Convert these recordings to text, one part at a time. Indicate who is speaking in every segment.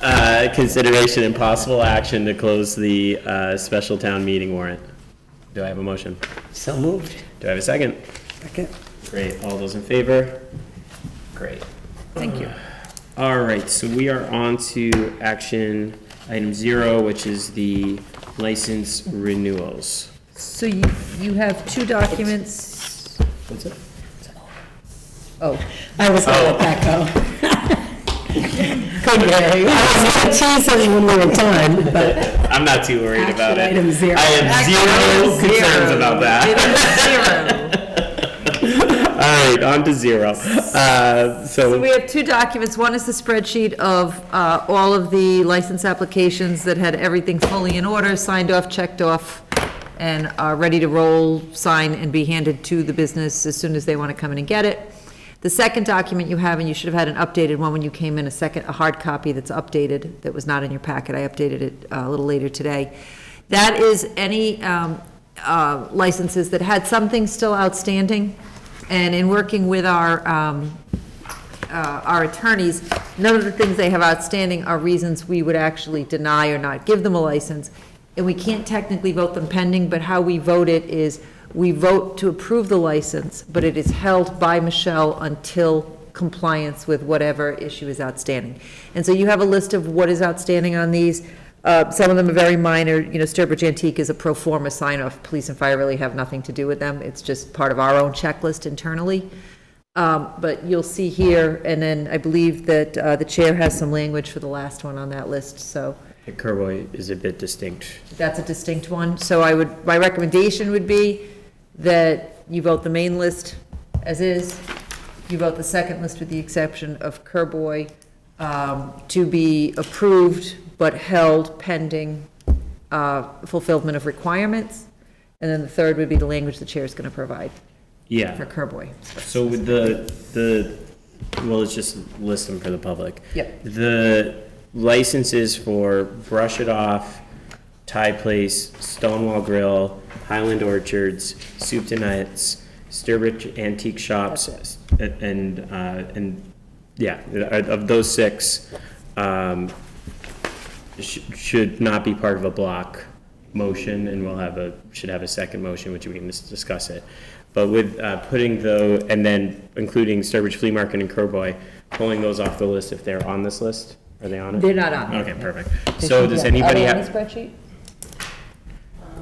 Speaker 1: uh, consideration and possible action to close the uh, special town meeting warrant. Do I have a motion?
Speaker 2: So moved.
Speaker 1: Do I have a second?
Speaker 2: Second.
Speaker 1: Great, all those in favor? Great. Uh,
Speaker 2: Thank you.
Speaker 1: All right, so we are on to action item zero, which is the license renewals.
Speaker 3: So you, you have two documents,
Speaker 1: What's it?
Speaker 3: oh,
Speaker 2: I was gonna let that go. Couldn't hear you. I was gonna tease it when we were done, but
Speaker 1: I'm not too worried about it.
Speaker 2: Action item zero.
Speaker 1: I have
Speaker 3: Action
Speaker 1: zero
Speaker 3: item
Speaker 1: concerns
Speaker 3: zero.
Speaker 1: about that. All right, on to zero. Uh,
Speaker 3: so we
Speaker 1: So,
Speaker 3: have two documents, one is the spreadsheet of, uh, all of the license applications that had everything fully in order, signed off, checked off, and are ready to roll, sign, and be handed to the business as soon as they wanna come in and get it. The second document you have, and you should have had an updated one when you came in, a second, a hard copy that's updated, that was not in your packet, I updated it uh, a little later today. That is any, um, uh, licenses that had something still outstanding, and in working with our, um, uh, our attorneys, none of the things they have outstanding are reasons we would actually deny or not give them a license. And we can't technically vote them pending, but how we vote it is, we vote to approve the license, but it is held by Michelle until compliance with whatever issue is outstanding. And so you have a list of what is outstanding on these. Uh, Some of them are very minor, you know, Sturbridge Antique is a pro forma sign-off. Police and fire really have nothing to do with them. It's just part of our own checklist internally. Um, But you'll see here, and then I believe that uh, the chair has some language for the last one on that list, so
Speaker 1: Kerwoy is a bit distinct.
Speaker 3: that's a distinct one. So I would, my recommendation would be that you vote the main list as is, you vote the second list with the exception of Kerboy um, to be approved but held pending uh, fulfillment of requirements, and then the third would be the language the chair is going to provide for
Speaker 1: Yeah,
Speaker 3: Kerboy.
Speaker 1: so with the, the, well, let's just list them for the public.
Speaker 3: Yep.
Speaker 1: The licenses for Brush It Off, Thai Place, Stonewall Grill, Highland Orchards, Soup to Nuts, Sturbridge Antique Shops, and, uh, and, yeah, of those six, um, sh- should not be part of a block motion, and we'll have a, should have a second motion, which we can just discuss it. But with uh, putting though, and then including Sturbridge Flea Market and Kerboy, pulling those off the list if they're on this list? Are they on it?
Speaker 3: They're not on it.
Speaker 1: Okay, perfect. So does anybody
Speaker 3: Are they on
Speaker 1: have,
Speaker 3: the spreadsheet?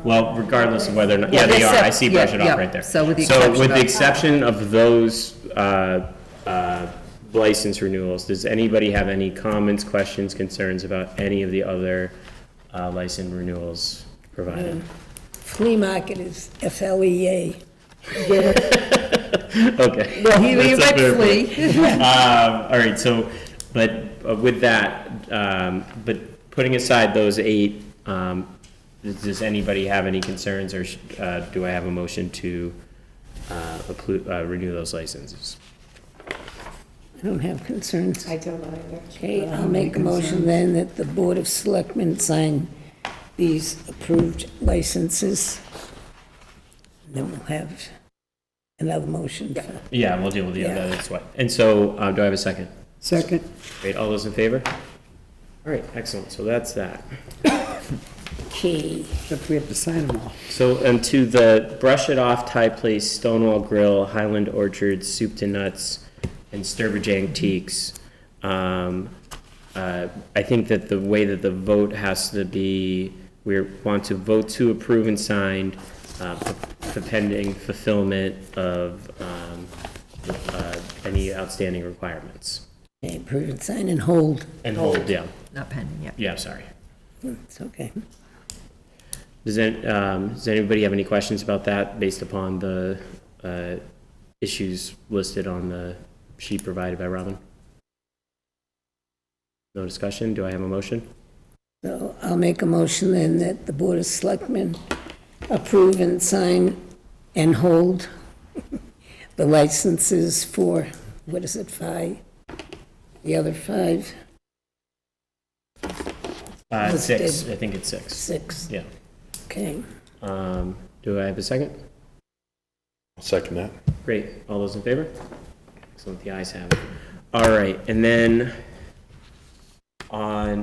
Speaker 1: well, regardless of whether or not, yeah,
Speaker 3: Yeah,
Speaker 1: they are, I
Speaker 3: except-
Speaker 1: see brush it
Speaker 3: yeah,
Speaker 1: off
Speaker 3: yeah.
Speaker 1: right there.
Speaker 3: So with the
Speaker 1: So with the
Speaker 3: exception
Speaker 1: exception of those uh, uh, license renewals, does anybody have any comments, questions, concerns about any of the other uh, license renewals provided?
Speaker 4: Flea market is
Speaker 3: E
Speaker 4: F-L-E-A.
Speaker 1: Okay.
Speaker 3: Well, he he
Speaker 1: That's up
Speaker 3: went
Speaker 1: there.
Speaker 3: flea.
Speaker 1: Um, All right, so, but uh, with that, um, but putting aside those eight, um, does does anybody have any concerns, or sh- uh, do I have a motion to uh, appro- uh, renew those licenses?
Speaker 4: I don't have concerns.
Speaker 2: I don't either.
Speaker 4: Okay, I'll make a motion then that the Board of Selectmen sign these approved licenses. Then we'll have another motion. for-
Speaker 1: Yeah, we'll deal with the
Speaker 4: Yeah.
Speaker 1: other, that's why. And so, uh, do I have a second?
Speaker 2: Second.
Speaker 1: Great, all those in favor? All right, excellent, so that's that.
Speaker 4: Okay,
Speaker 2: Except we have to sign them all.
Speaker 1: So, and to the Brush It Off Thai Place, Stonewall Grill, Highland Orchard, Soup to Nuts, and Sturbridge Antiques, um, uh, I think that the way that the vote has to be, we want to vote to approve and sign, uh, p- pending fulfillment of, um, uh, any outstanding requirements.
Speaker 4: Okay, approve and sign and hold.
Speaker 1: And hold, yeah,
Speaker 3: Not pending, yeah.
Speaker 1: yeah, sorry.
Speaker 4: It's okay.
Speaker 1: Does, any- um, does anybody have any questions about that based upon the, uh, issues listed on the sheet provided by Robin? No discussion? Do I have a motion?
Speaker 4: So I'll make a motion then that the Board of Selectmen approve and sign and hold the licenses for, what is it, five? The other five,
Speaker 1: Uh,
Speaker 4: Let's
Speaker 1: six,
Speaker 4: do-
Speaker 1: I think it's six.
Speaker 4: six,
Speaker 1: Yeah.
Speaker 4: okay.
Speaker 1: Um, do I have a second?
Speaker 5: Second that.
Speaker 1: Great. All those in favor? Excellent. The ayes have it. All right. And then on